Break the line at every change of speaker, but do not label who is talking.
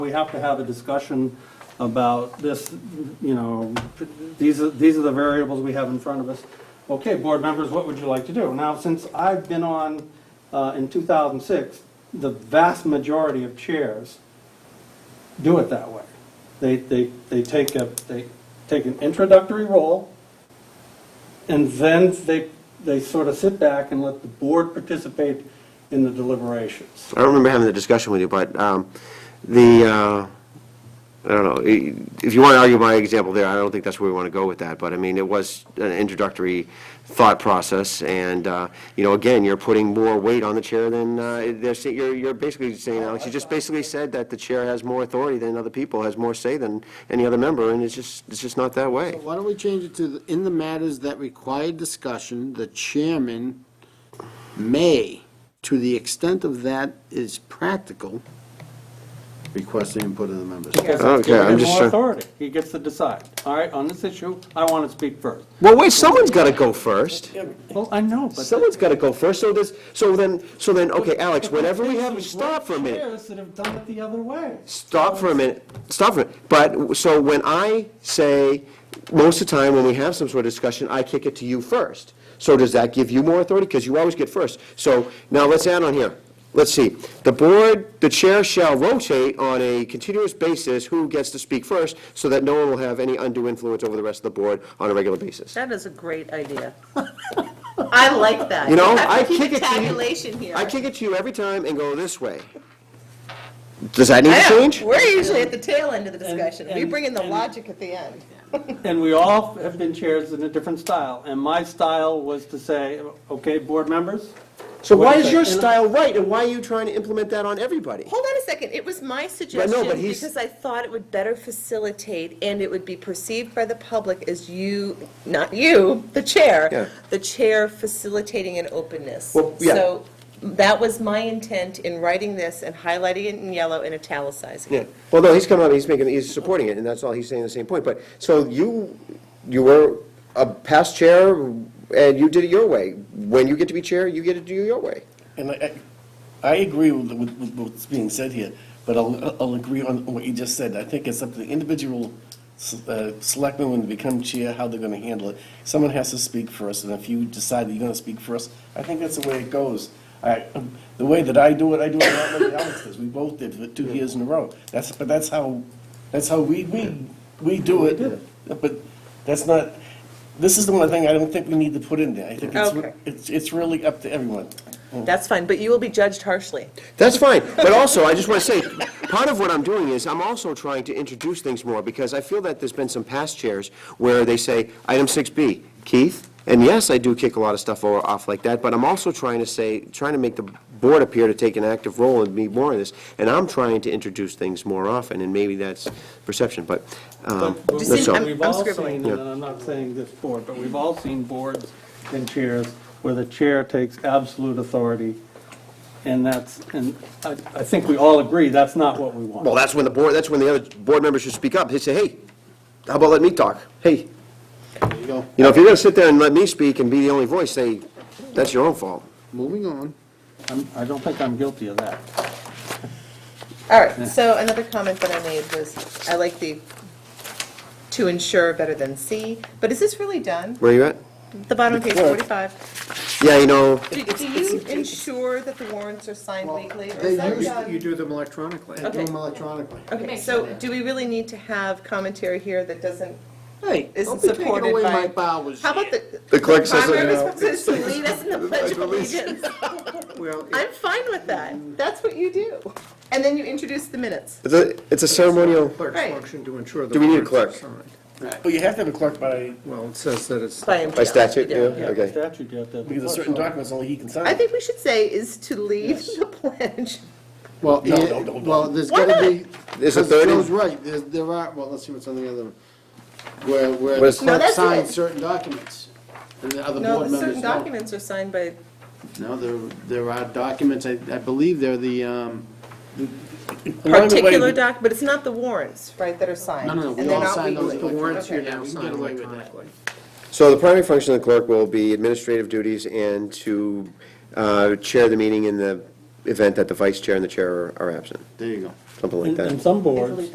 We have to have a discussion about this, you know, these are, these are the variables we have in front of us. Okay, board members, what would you like to do? Now, since I've been on, uh, in 2006, the vast majority of chairs do it that way. They, they, they take a, they take an introductory role, and then they, they sort of sit back and let the board participate in the deliberations.
I don't remember having the discussion with you, but um, the, uh, I don't know, i- if you want to argue my example there, I don't think that's where we want to go with that, but I mean, it was an introductory thought process, and, uh, you know, again, you're putting more weight on the chair than, uh, they're, sa- you're, you're basically saying, Alex, you just basically said that the chair has more authority than other people, has more say than any other member, and it's just, it's just not that way.
Why don't we change it to, the- in the matters that require discussion, the chairman may, to the extent of that is practical, request the input of the members.
Because
Okay,
that's giving
I'm
him
just
more
trying-
authority. He gets to decide. All right, on this issue, I want to speak first.
Well, wait, someone's got to go first.
Well, I know, but.
Someone's got to go first, so this, so then, so then, okay, Alex, whenever we have, stop for a minute.
Chairs that have done it the other way.
Stop for a minute, stop for a minute. But, so when I say, most of the time when we have some sort of discussion, I kick it to you first. So does that give you more authority? Because you always get first. So now let's add on here. Let's see. The board, the chair shall rotate on a continuous basis who gets to speak first so that no one will have any undue influence over the rest of the board on a regular basis.
That is a great idea. I like that.
You know,
have to
I
keep
kick
a
it to you.
Tabulation here.
I kick it to you every time and go this way. Does that need
I
to
know.
change?
We're usually at the tail end of the discussion. We
and-
bring in the
and-
logic at the end.
And we all have been chairs in a different style. And my style was to say, okay, board members?
So
Wait
why
a
is your
second.
style right, and why are you trying to implement that on everybody?
Hold on a second. It was my
no,
suggestion
but he's-
because I thought it would better facilitate and it would be perceived by the public as you, not you, the
Yeah.
chair, the chair facilitating an openness.
Well, yeah.
So that was my intent in writing this and highlighting it in yellow and italicizing
Yeah,
it.
well, no, he's coming up, he's making, he's supporting it, and that's all, he's saying the same point, but, so you, you were a past chair, and you did it your way. When you get to be chair, you get to do it your way.
And I, I- I agree with, with with what's being said here, but I'll, I'll agree on what you just said. I think it's up to the individual s- uh, selectman when they become chair, how they're gonna handle it. Someone has to speak first, and if you decide that you're gonna speak first, I think that's the way it goes. I, um, the way that I do it, I do it not like Alex does. We both did for two years in a row. That's, but that's how, that's how we, we, we do it. But that's not, this is the one thing I don't think we need to put in there. I think it's,
Okay.
it's, it's really up to everyone.
That's fine, but you will be judged harshly.
That's fine, but also, I just want to say, part of what I'm doing is, I'm also trying to introduce things more, because I feel that there's been some past chairs where they say, item 6B, Keith, and yes, I do kick a lot of stuff o- off like that, but I'm also trying to say, trying to make the board appear to take an active role and be more in this, and I'm trying to introduce things more often, and maybe that's perception, but, um,
But
Just
that's
in-
all.
I'm-
We've all
scribbling.
seen, and I'm not saying this board, but we've all seen boards and chairs where the chair takes absolute authority. And that's, and I, I think we all agree, that's not what we want.
Well, that's when the board, that's when the other board members should speak up, they say, hey, how about let me talk? Hey,
There you go.
you know, if you're going to sit there and let me speak and be the only voice, say, that's your own fault.
Moving on.
I'm- I don't think I'm guilty of that.
All right, so another comment that I made was, I like the to ensure better than see, but is this really done?
Where are you at?
The bottom of page
Well-
45.
Yeah, you know,
Do do you ensure that the warrants are signed weekly? or is
They
that
use-
done?
You do them electronically. I do
Okay.
them electronically.
Okay, so do we really need to have commentary here that doesn't,
Hey,
isn't
don't be taking
supported
away
by-
my powers.
how about the?
The clerk says it
Primary
now.
responsibility is to lead us in the pledge of allegiance.
Well, it-
I'm fine with that. That's what you do. And then you introduce the minutes.
it's a, it's a ceremonial,
Clerk's
Right.
function to ensure the.
Do we need a
warrants are signed.
But you have to have a clerk by,
Well, it says that it's.
By
by statute, yeah,
By
okay.
statute, you have to have a
because there's certain documents only he can sign.
I think we should say is to lead the pledge.
Well,
No,
yeah,
no, no, no.
well, there's
Why
gotta be.
not?
There's a
because
thirty-
Joe's right, there's, there are, well, let's see what's on the other, where, where the
Where's-
No,
clerk
that's
signs
it.
certain documents, and the other
No,
board
the certain
members don't.
documents are signed by,
No, there, there are documents, I, I believe they're the, um,
Along the way,
particular doc, but it's not the warrants, right, that are signed?
no, no, no,
and
we
they're
all
not
sign those.
legally- Okay.
now, we can get away with that.
So the primary function of the clerk will be administrative duties and to uh, chair the meeting in the event that the vice chair and the chair are absent.
There you go.
something like
And
that.
and some boards.
Usually